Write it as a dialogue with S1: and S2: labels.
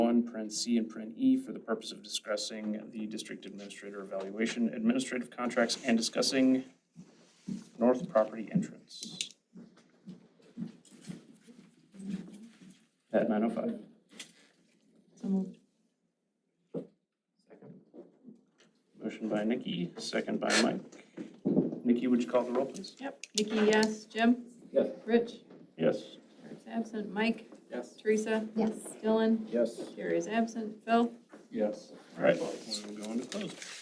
S1: one, parent C and parent E, for the purpose of discussing the district administrator evaluation, administrative contracts, and discussing north property entrance. At nine oh five.
S2: So moved.
S1: Motion by Nikki, second by Mike. Nikki, would you call the roll, please?
S2: Yep. Nikki, yes. Jim?
S3: Yes.
S2: Rich?
S1: Yes.
S2: Eric's absent. Mike?
S3: Yes.
S2: Teresa?
S4: Yes.
S2: Dylan?
S3: Yes.
S2: Jerry is absent. Phil?
S3: Yes.
S1: All right, we'll go into closed.